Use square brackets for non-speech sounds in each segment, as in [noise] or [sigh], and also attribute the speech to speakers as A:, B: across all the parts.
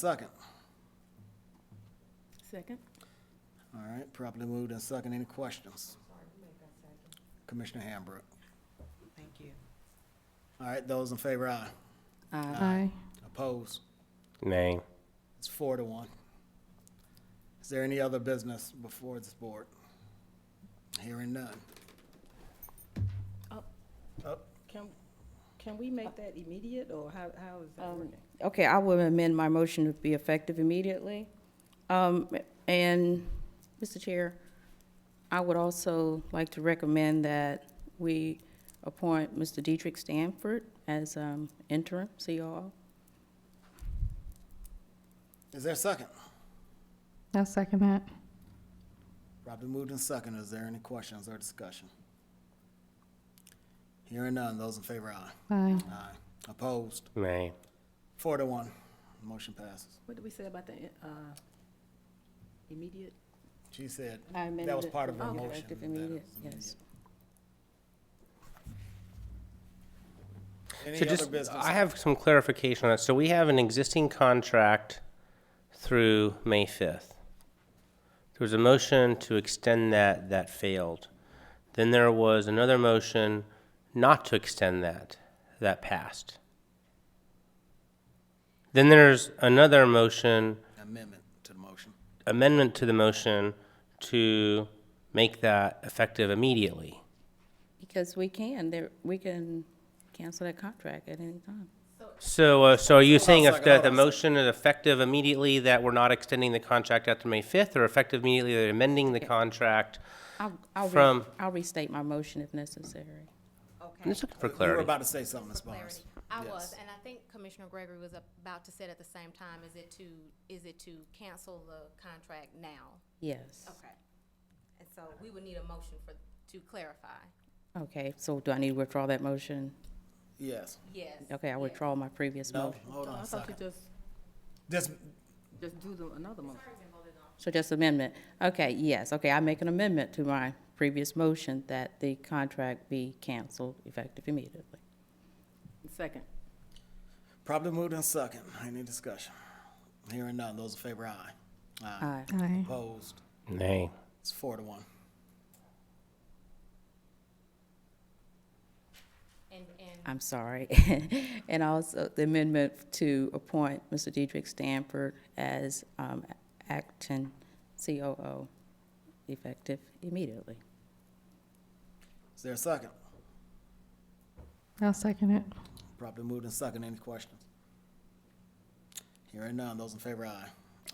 A: Second.
B: Second?
A: All right, properly moved and second. Any questions? Commissioner Hambrick.
C: Thank you.
A: All right, those in favor, aye.
B: Aye.
A: Opposed?
D: Nay.
A: It's four to one. Is there any other business before this board? Hearing none.
B: Oh.
A: Up.
C: Can, can we make that immediate, or how, how is that working?
E: Okay, I will amend my motion to be effective immediately. Um, and, Mr. Chair, I would also like to recommend that we appoint Mr. Dietrich Stanford as, um, interim COO.
A: Is there a second?
B: I'll second that.
A: Properly moved and second. Is there any questions or discussion? Hearing none. Those in favor, aye.
B: Aye.
A: Aye. Opposed?
D: Nay.
A: Four to one. Motion passes.
C: What did we say about the, uh, immediate?
A: She said
E: I amended
A: that was
E: it
A: part
E: to
A: of her
E: be
C: Oh.
A: motion.
E: effective
A: that it was
E: immediate,
A: immediate.
E: Yes.
A: Any
D: So
A: other
D: just,
A: business?
D: I have some clarification on that. So we have an existing contract through May 5th. There was a motion to extend that, that failed. Then there was another motion not to extend that, that passed. Then there's another motion,
A: Amendment to the motion.
D: amendment to the motion to make that effective immediately.
E: Because we can, there, we can cancel that contract at any time.
D: So, uh, so are you saying
A: on a
D: if
A: second, hold
D: the, the
A: on a second.
D: motion is effective immediately, that we're not extending the contract after May fifth, or effective immediately, they're amending the contract?
E: I'll, I'll, re-
D: From-
E: I'll restate my motion if necessary.
D: I'm
F: Okay,
D: just looking for
A: You were
D: clarity.
A: about to say something, Ms. Barnes.
F: clarity. I
A: Yes.
F: was, and I think Commissioner Gregory was about to say it at the same time, is it to, is it to cancel the contract now?
E: Yes.
F: Okay. And so we would need a motion for, to clarify.
E: Okay, so do I need to withdraw that motion?
A: Yes.
F: Yes.
E: Okay, I
F: yes.
E: withdraw my previous
A: No,
E: motion.
A: hold
C: Oh,
A: on
C: I
A: a
C: thought you
A: second.
C: just,
A: Just,
C: just do the, another motion.
E: So just amendment. Okay, yes, okay, I make an amendment to my previous motion that the contract be canceled effective immediately.
C: Second.
A: probably moved in second. Any discussion? Hearing none. Those in favor, aye. Aye.
E: Aye.
B: Aye.
A: Opposed?
D: Nay.
A: It's four to one.
F: And, and
E: I'm sorry. [laughs] And also the amendment to appoint Mr. Dietrich Stanford as um, acting COO effective immediately.
A: Is there a second?
B: I'll second it.
A: Probably moved in second. Any questions? Hearing none. Those in favor, aye.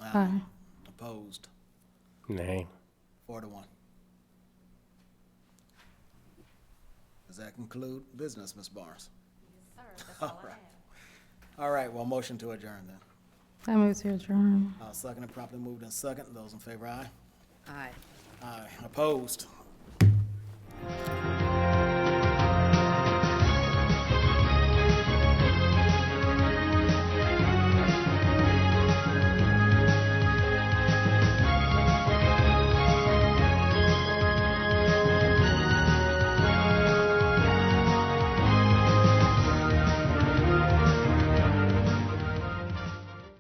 B: Aye.
A: Opposed?
D: Nay.
A: Four to one. Does that conclude business, Ms. Barnes?
F: sir,
A: [laughs]
F: that's all I have.
A: All right, well, motion to adjourn then.
B: I move to adjourn.
A: Uh, second and properly moved and second. Those in favor, aye.
E: Aye.
A: Aye. Opposed?